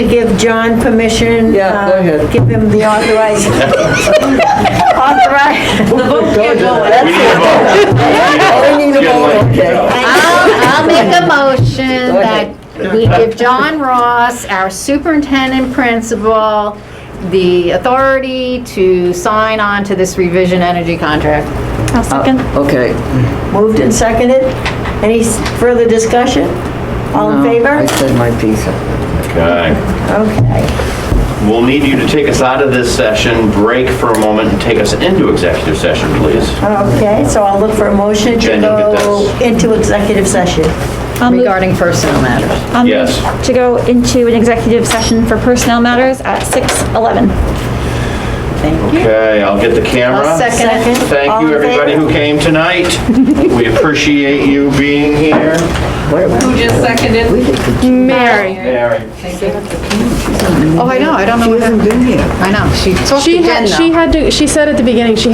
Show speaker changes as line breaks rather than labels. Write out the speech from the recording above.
John permission?
Yeah, go
uh,
ahead.
Give him the authorized, authorized.
The vote can't go in.
We need
Oh, we need a
a vote.
vote, okay.
I'll I'll make a motion
Go
that
ahead.
we give John Ross, our superintendent principal, the authority to sign on to this revision energy contract.
I'll second.
Okay.
Moved and seconded. Any s- further discussion? All in
I
favor?
said my piece.
Okay.
Okay.
We'll need you to take us out of this session, break for a moment, and take us into executive session, please.
Okay, so I'll look for a motion to
Jen, you get
go
this.
into executive session.
I'll move-
regarding personal matters.
I'll move
Yes.
To go into an executive session for personnel matters at 6:11.
Okay, I'll get the camera.
I'll second it.
Second?
Thank
All in
you,
favor?
everybody who came tonight. We appreciate you being here.
Who just seconded?
Mary.
Mary.
Oh, I know, I don't know
She
what happened.
hasn't been here.
I know, she talked to
She
Jen
had,
though.
she had to, she said at the beginning, she